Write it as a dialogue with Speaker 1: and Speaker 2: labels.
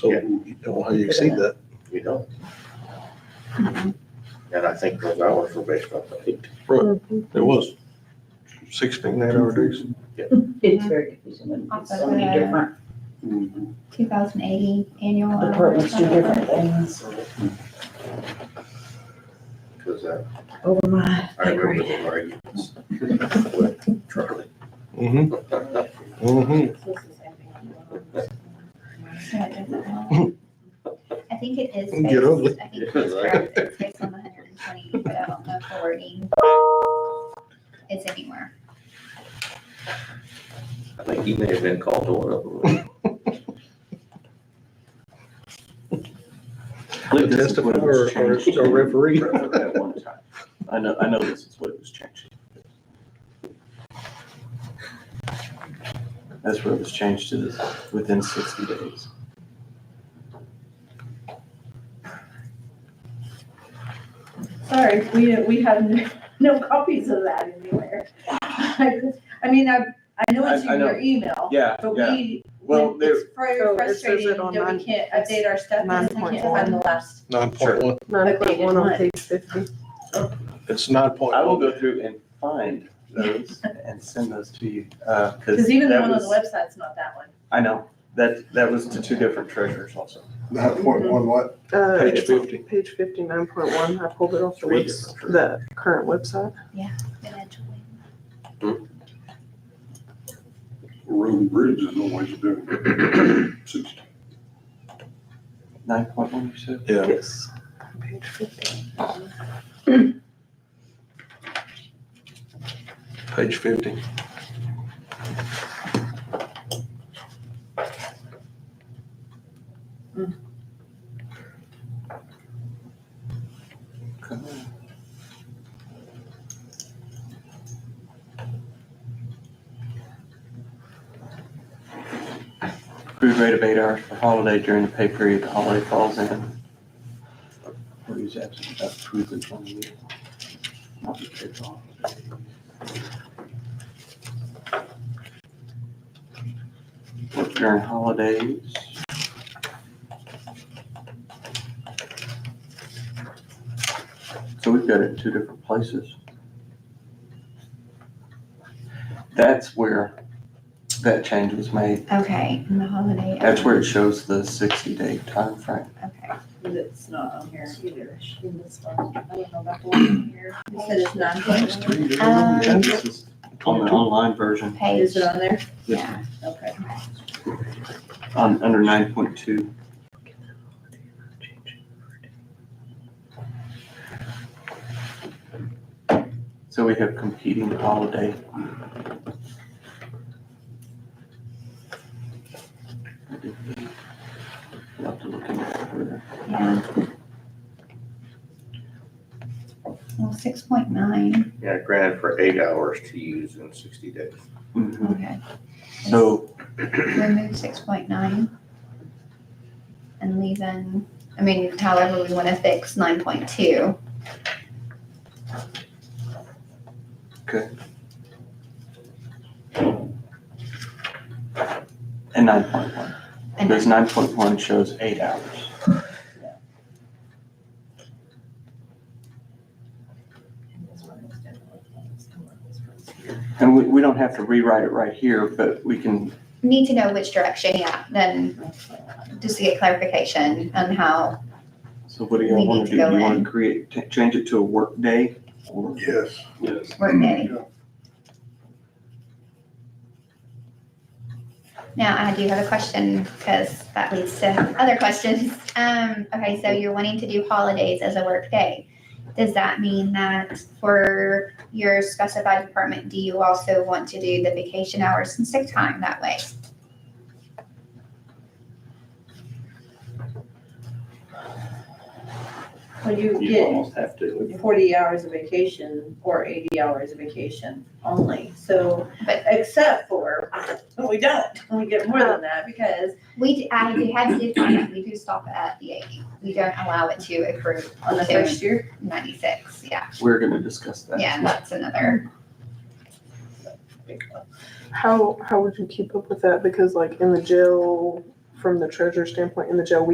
Speaker 1: So
Speaker 2: Yeah.
Speaker 1: you don't know how you exceed that.
Speaker 2: You don't. And I think those hours were based off of it.
Speaker 1: It was sixteen nine hour days.
Speaker 3: It's very confusing when it's so many different
Speaker 4: 2080 annual. uh,
Speaker 3: departments do different things.
Speaker 2: Cause uh,
Speaker 3: Oh my.
Speaker 2: I remember the arguments with Charlie.
Speaker 1: Mm-hmm, mm-hmm.
Speaker 4: so it doesn't matter. I think it is.
Speaker 1: Get
Speaker 4: based-
Speaker 1: ugly.
Speaker 4: I think it's correct. It's based on the 120, but I don't know if the wording is anywhere.
Speaker 2: I think he may have been called to one of them.
Speaker 5: believe this is
Speaker 1: Testify
Speaker 5: what it
Speaker 1: or,
Speaker 5: was
Speaker 1: or
Speaker 5: changed
Speaker 1: a referee.
Speaker 5: at one time. I know, I know this is what it was changed. That's where it was changed to this, within sixty days.
Speaker 6: Sorry, we, we have no, no copies of that anywhere. I mean, I, I know it's
Speaker 5: I- I
Speaker 6: in
Speaker 5: know.
Speaker 6: your email,
Speaker 5: Yeah,
Speaker 6: but
Speaker 5: yeah.
Speaker 6: we,
Speaker 5: Well,
Speaker 6: when
Speaker 5: there,
Speaker 6: it's very
Speaker 7: So it says it
Speaker 6: frustrating
Speaker 7: on
Speaker 6: that
Speaker 7: nine-
Speaker 6: we can't update our stuff because we can't
Speaker 7: 9.1.
Speaker 6: find the last.
Speaker 1: Nine point one,
Speaker 7: Nine point one on
Speaker 6: Okay.
Speaker 7: page fifty.
Speaker 1: it's nine point
Speaker 5: I will
Speaker 1: one.
Speaker 5: go through and find those and send those to you, uh, cause.
Speaker 6: Because even the
Speaker 5: that
Speaker 6: one on the
Speaker 5: was-
Speaker 6: website's not that one.
Speaker 5: I know, that, that was to two different treasurers also.
Speaker 8: Nine point one what?
Speaker 7: Uh,
Speaker 1: Page
Speaker 7: it's on
Speaker 1: 50.
Speaker 7: Page fifty, nine point one. I pulled it off the
Speaker 5: Three
Speaker 7: webs,
Speaker 5: different
Speaker 7: the current website.
Speaker 4: eventually.
Speaker 8: Road and bridge is no way to do it. Six-
Speaker 5: Nine point one, you said?
Speaker 1: Yeah.
Speaker 7: Yes. Page fifty.
Speaker 1: Page fifty.
Speaker 5: Accrued rate of eight hours for holiday during the pay period the holiday falls in. Or is absent, approved in twenty years. Not the paid holiday. Work during holidays. So we've got it in two different places. That's where that change was made
Speaker 4: Okay, and the holiday.
Speaker 5: that's where it shows the sixty day time frame.
Speaker 4: Okay.
Speaker 6: But it's not on here either. in this one. I don't know about the one on here. You said it's nine point one.
Speaker 4: Um,
Speaker 5: This is On the online version,
Speaker 4: Page,
Speaker 6: Is it on there?
Speaker 4: yeah.
Speaker 6: Okay.
Speaker 5: on, Um, under nine point two. So we have competing holiday. We'll have to look into that further.
Speaker 4: Yeah. Well, 6.9,
Speaker 2: Yeah, granted for eight hours to use in sixty days.
Speaker 5: Mhm.
Speaker 4: okay.
Speaker 5: So
Speaker 4: remove six point nine and leave in, I mean, however we want to fix nine point two.
Speaker 5: And nine point one.
Speaker 4: And
Speaker 5: Because nine point one shows eight hours. And we, we don't have to rewrite it right here, but we can,
Speaker 4: Need to know which direction, yeah, then just to get clarification on how,
Speaker 5: so what do y'all
Speaker 4: We
Speaker 5: wanna
Speaker 4: need to
Speaker 5: do?
Speaker 4: go
Speaker 5: You wanna
Speaker 4: in.
Speaker 5: create, ta- change it to a work day? or
Speaker 8: Yes.
Speaker 5: Yes.
Speaker 4: Workday.
Speaker 8: Yeah.
Speaker 4: Now, I do have a question because that leads to other questions. Um, okay, so you're wanting to do holidays as a work day. Does that mean that for your specified department, do you also want to do the vacation hours and sick time that way?
Speaker 6: Well, you
Speaker 5: You
Speaker 6: get
Speaker 5: almost have to.
Speaker 6: forty hours of vacation or eighty hours of vacation only, so,
Speaker 4: But-
Speaker 6: except for, we don't, we get more than that, because
Speaker 4: We, d- I do have to define that, we do stop at the eighty, we don't allow it to accrue
Speaker 6: on the
Speaker 4: to
Speaker 6: first year,
Speaker 4: ninety-six, yeah,
Speaker 5: We're gonna discuss that.
Speaker 4: yeah, that's another,
Speaker 7: How, how would you keep up with that? Because like in the jail from the treasurer's standpoint in the jail, we